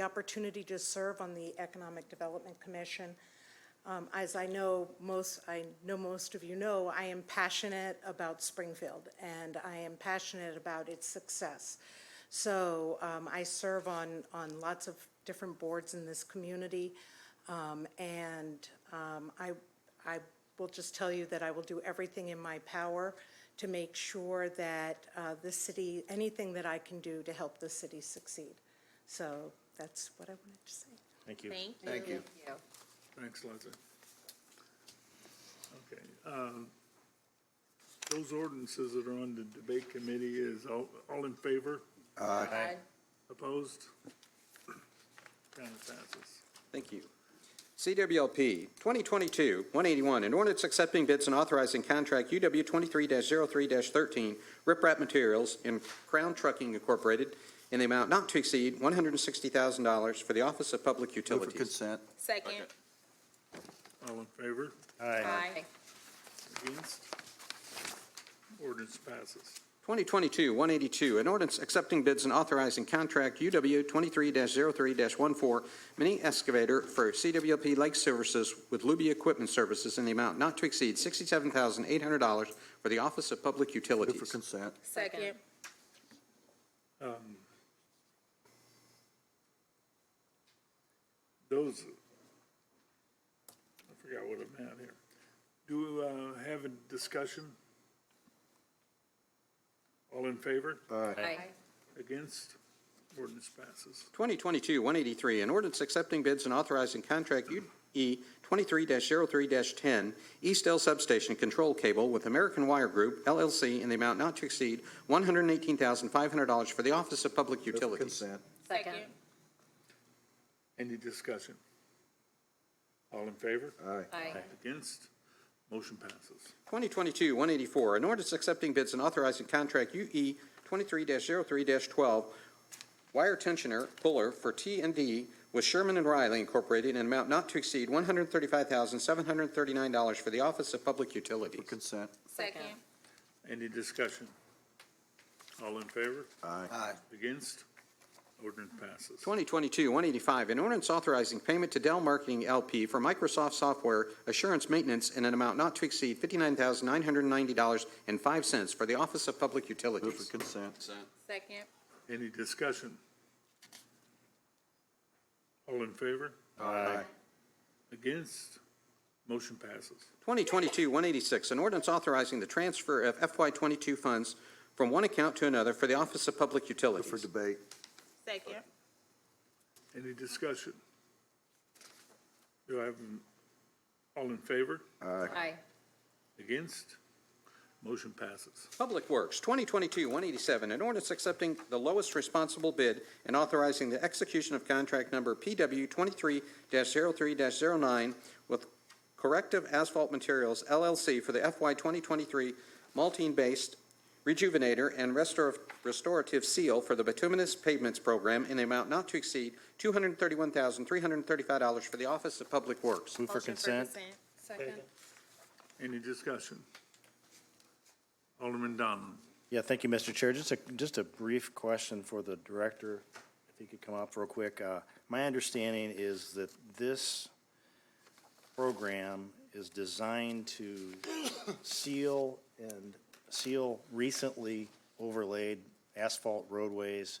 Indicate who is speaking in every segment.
Speaker 1: the opportunity to serve on the Economic Development Commission. Um, As I know, most, I know most of you know, I am passionate about Springfield, and I am passionate about its success. So um, I serve on, on lots of different boards in this community, um, and um, I, I will just tell you that I will do everything in my power to make sure that uh, the city, anything that I can do to help the city succeed. So that's what I wanted to say.
Speaker 2: Thank you.
Speaker 3: Thank you.
Speaker 4: Thank you.
Speaker 5: Thanks, Leslie. Okay, um, those ordinances that are on the debate committee is all, all in favor,
Speaker 3: Aye.
Speaker 5: opposed? Kind of passes.
Speaker 6: Thank you. CWLP 2022-181, an ordinance accepting bids and authorizing contract UW 23-03-13 riprap materials and Crown Trucking Incorporated in the amount not to exceed $160,000 for the Office of Public
Speaker 4: Move for
Speaker 6: Utilities.
Speaker 4: consent.
Speaker 3: Second.
Speaker 5: All in favor,
Speaker 3: Aye.
Speaker 5: against? Ordinance passes.
Speaker 6: 2022-182, an ordinance accepting bids and authorizing contract UW 23-03-14 mini excavator for CWLP Lake Services with Luby Equipment Services in the amount not to exceed $67,800 for the Office of Public
Speaker 4: Move for
Speaker 6: Utilities.
Speaker 4: consent.
Speaker 3: Second.
Speaker 5: Those, I forgot what I'm at here. Do we, uh, have a discussion? All in favor,
Speaker 3: Aye.
Speaker 5: against? Ordinance passes.
Speaker 6: 2022-183, an ordinance accepting bids and authorizing contract E UE 23-03-10 Eastdale Substation Control Cable with American Wire Group LLC in the amount not to exceed $118,500 for the Office of Public
Speaker 4: Move for
Speaker 6: Utilities.
Speaker 4: consent.
Speaker 3: Second.
Speaker 5: Any discussion? All in favor?
Speaker 4: Aye.
Speaker 3: Aye.
Speaker 5: Against? Motion passes.
Speaker 6: 2022-184, an ordinance accepting bids and authorizing contract E UE 23-03-12 Wire Tensioner Puller for t and D with Sherman and Riley Incorporated in an amount not to exceed $135,739 for the Office of Public Utilities.
Speaker 4: Move for consent.
Speaker 3: Second.
Speaker 5: Any discussion? All in favor?
Speaker 4: Aye. Aye.
Speaker 5: Against? Ordinance passes.
Speaker 6: 2022-185, an ordinance authorizing payment to Dell Marketing LP for Microsoft software assurance maintenance in an amount not to exceed $59,990.05 for the Office of Public
Speaker 4: Move for
Speaker 6: Utilities.
Speaker 4: consent.
Speaker 3: Second.
Speaker 5: Any discussion? All in favor?
Speaker 4: Aye.
Speaker 5: Against? Motion passes.
Speaker 6: 2022-186, an ordinance authorizing the transfer of FY22 funds from one account to another for the Office of Public
Speaker 4: Move for
Speaker 6: Utilities.
Speaker 4: debate.
Speaker 3: Second.
Speaker 5: Any discussion? Do I have, an- all in favor?
Speaker 4: Aye.
Speaker 3: Aye.
Speaker 5: Against? Motion passes.
Speaker 6: Public Works, 2022-187, an ordinance accepting the lowest responsible bid and authorizing the execution of contract number PW 23-03-09 with Corrective Asphalt Materials LLC for the FY 2023 Maltine-based Rejuvenator and restor- Restorative Seal for the Bituminous Pavements Program in the amount not to exceed $231,335 for the Office of Public Works.
Speaker 2: Move for consent.
Speaker 3: Second.
Speaker 5: Any discussion? Alderman Donovan.
Speaker 2: Yeah, thank you, Mr. Chair. Just a, just a brief question for the director, if he could come up real quick. Uh, My understanding is that this program is designed to seal and seal recently overlaid asphalt roadways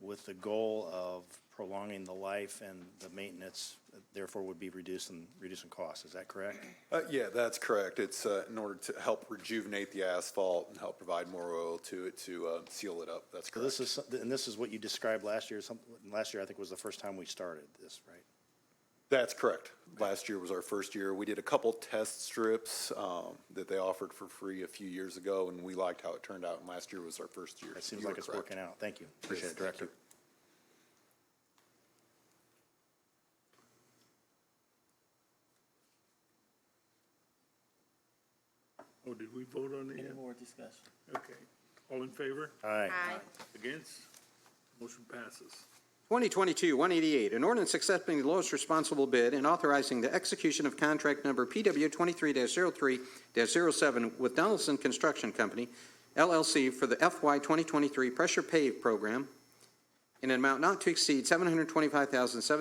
Speaker 2: with the goal of prolonging the life and the maintenance, therefore would be reducing, reducing costs. Is that correct?
Speaker 7: Uh, yeah, that's correct. It's, uh, in order to help rejuvenate the asphalt and help provide more oil to it to, uh, seal it up. That's
Speaker 2: So
Speaker 7: correct.
Speaker 2: this is, some- and this is what you described last year, something, last year I think was the first time we started this, right?
Speaker 7: That's correct. Last year was our first year. We did a couple test strips, um, that they offered for free a few years ago and we liked how it turned out. And last year was our first year.
Speaker 2: It seems like it's working out. Thank you. Appreciate it, Director.
Speaker 5: Oh, did we vote on it yet?
Speaker 8: more discussion?
Speaker 5: Okay. All in favor?
Speaker 2: All right.
Speaker 5: Against? Motion passes.
Speaker 6: 2022-188, an ordinance accepting the lowest responsible bid and authorizing the execution of contract number PW 23-03-07 with Donaldson Construction Company LLC for the FY 2023 Pressure Pave Program in an amount not to exceed seven hundred twenty-five thousand seven.